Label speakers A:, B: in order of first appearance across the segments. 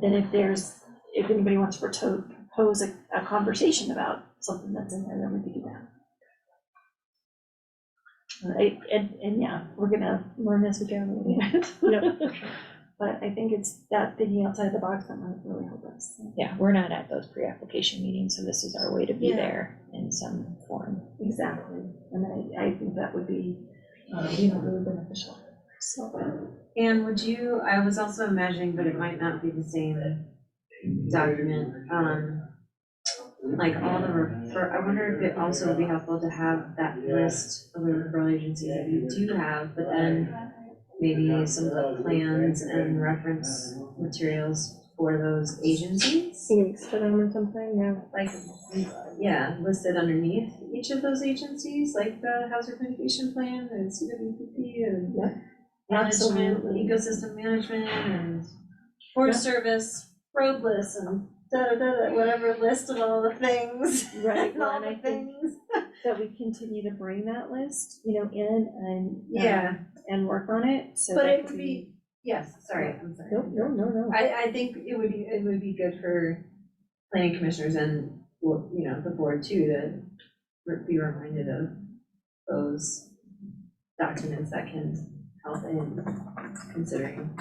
A: then if there's, if anybody wants to proto- propose a, a conversation about something that's in there, then we could do that. Right, and, and yeah, we're gonna learn as we go, maybe. But I think it's that thinking outside the box that might really help us.
B: Yeah, we're not at those pre-application meetings, so this is our way to be
A: Yeah.
B: there in some form.
A: Exactly, and I, I think that would be, um, you know, really beneficial, so.
C: And would you, I was also imagining, but it might not be the same document, um, like all the refer, I wonder if it also would be helpful to have that list of the referral agencies that you do have, but then maybe some of the plans and reference materials for those agencies?
D: links to them or something, yeah.
C: Like, yeah, listed underneath each of those agencies, like the Housing Communication Plan and CWPP and
A: Yeah.
C: management,
A: Absolutely.
C: ecosystem management and forest service, road list and da-da-da-da, whatever list of all the things,
A: Right,
C: and
A: well,
C: all
A: and I
C: the
A: think
C: things.
A: that we continue to bring that list, you know, in and. um,
C: Yeah,
A: And work on it, so.
C: but
A: that
C: it would be, yes, sorry, I'm sorry.
A: No, no, no, no.
C: I, I think it would be, it would be good for planning commissioners and, well, you know, the board too, to re- be reminded of those documents that can help in considering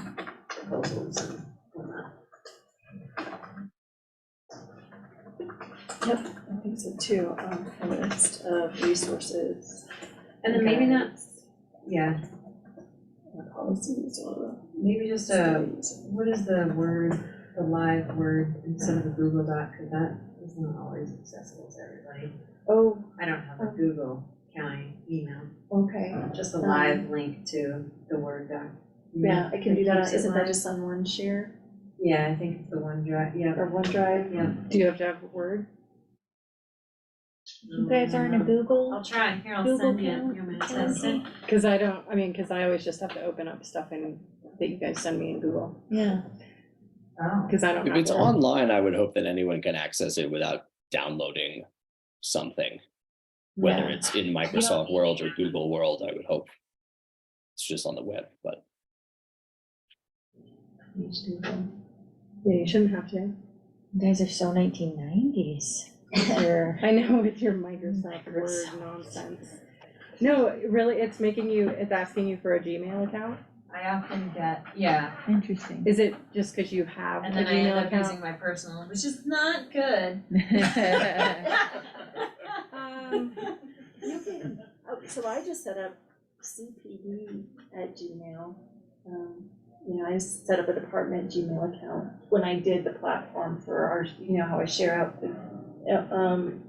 C: proposals and whatnot.
A: Yep, I think so too, um, a list of resources.
C: And then maybe not,
A: guides,
C: yeah,
A: and Policies or.
C: maybe just a,
A: studies.
C: what is the word, the live word instead of the Google Doc, because that is not always accessible to everybody.
A: Oh,
C: I don't have a Google County email,
A: okay,
C: just a live link to the Word doc.
A: yeah, I can do
C: Keeps
A: that,
C: it
A: isn't that
C: live.
A: just on OneShare
C: Yeah, I think it's the OneDrive, yeah.
A: or OneDrive?
D: Do you have to have a word?
B: You guys aren't a
C: Mm-hmm. I'll
B: Google?
C: try, here, I'll
B: Google
C: send you,
B: Calendar.
C: you want me to test it?
D: Cause I don't, I mean, cause I always just have to open up stuff in, that you guys send me in Google,
B: Yeah.
C: Oh.
D: cause I don't have.
E: If it's
D: that.
E: online, I would hope that anyone can access it without downloading something, whether it's in Microsoft World or Google World, I would hope. It's just on the web, but
D: Yeah, you shouldn't have to.
B: You guys are so nineteen nineties. You're
D: I know with your Microsoft Word
B: Microsoft.
D: nonsense. No, really, it's making you, it's asking you for a Gmail account?
C: I often get, yeah,
F: Interesting.
D: Is it just cause you have a
C: and then I end
D: Gmail
C: up
D: account?
C: using my personal, which is not good.
D: Um,
A: You can, oh, so I just set up CPD at Gmail. Um, You know, I set up a department Gmail account when I did the platform for our, you know, how I share out the, uh, um,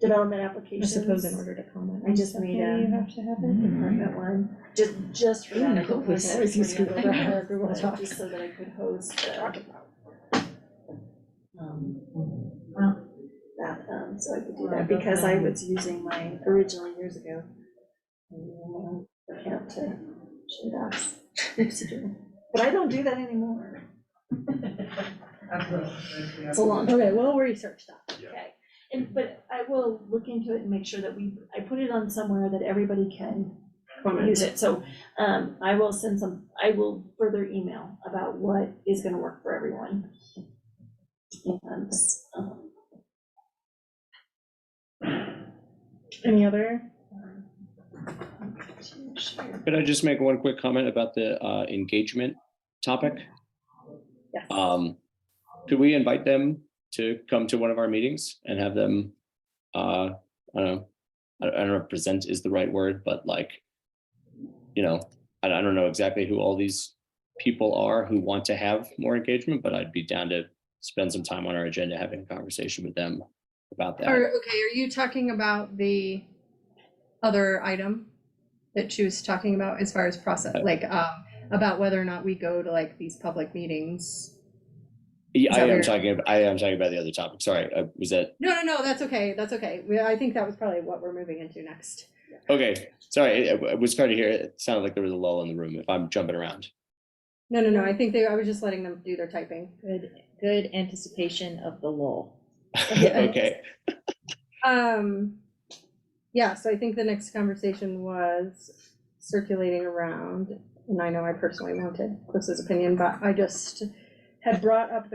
A: development
D: I suppose in
A: applications.
D: order to comment.
A: I
D: on
A: just
D: stuff,
A: made
D: maybe
A: a-
D: You have to have it.
A: Department one, just, just for
B: Ooh,
A: that. I
B: no,
A: could
B: we
A: host
B: always
A: it
B: use
A: for the
B: Google
A: other
B: Drive,
A: work,
B: Google
A: but
B: Docs.
A: Just so that I could host the, um,
C: Well.
A: that, um, so I could do
C: Well,
A: that, because I
C: okay.
A: was using my, originally years ago, um, account to share docs. But I don't do that anymore. It's a long.
D: Okay, we'll research that.
A: Okay, and, but I will look into it and make sure that we, I put it on somewhere that everybody can
D: Comment.
A: use it, so, um, I will send some, I will further email about what is gonna work for everyone. And, um,
D: Any other?
A: sure.
E: could I just make one quick comment about the uh, engagement topic?
A: Yes.
E: Um, could we invite them to come to one of our meetings and have them, uh, I don't know, I I don't know if present is the right word, but like, you know, I I don't know exactly who all these people are who want to have more engagement, but I'd be down to spend some time on our agenda, having a conversation with them about that.
F: Are, okay, are you talking about the other item that she was talking about as far as process,
E: Uh,
F: like, um, about whether or not we go to like these public meetings?
E: Yeah,
F: Is
E: I
F: that
E: am
F: weird?
E: talking, ab- I am talking about the other topic. Sorry, uh, was that,
F: No, no, no, that's okay, that's okay. We- I think that was probably what we're moving into next.
E: okay, sorry, I- I was trying to hear, it It sounded like there was a lull in the room if I'm jumping around.
F: No, no, no, I think they, I was just letting them do their typing.
B: good, good anticipation of the lull.
E: Okay,
F: Um, yeah, so I think the next conversation was circulating around, and I know I personally mounted Cliff's opinion, but I just had brought up the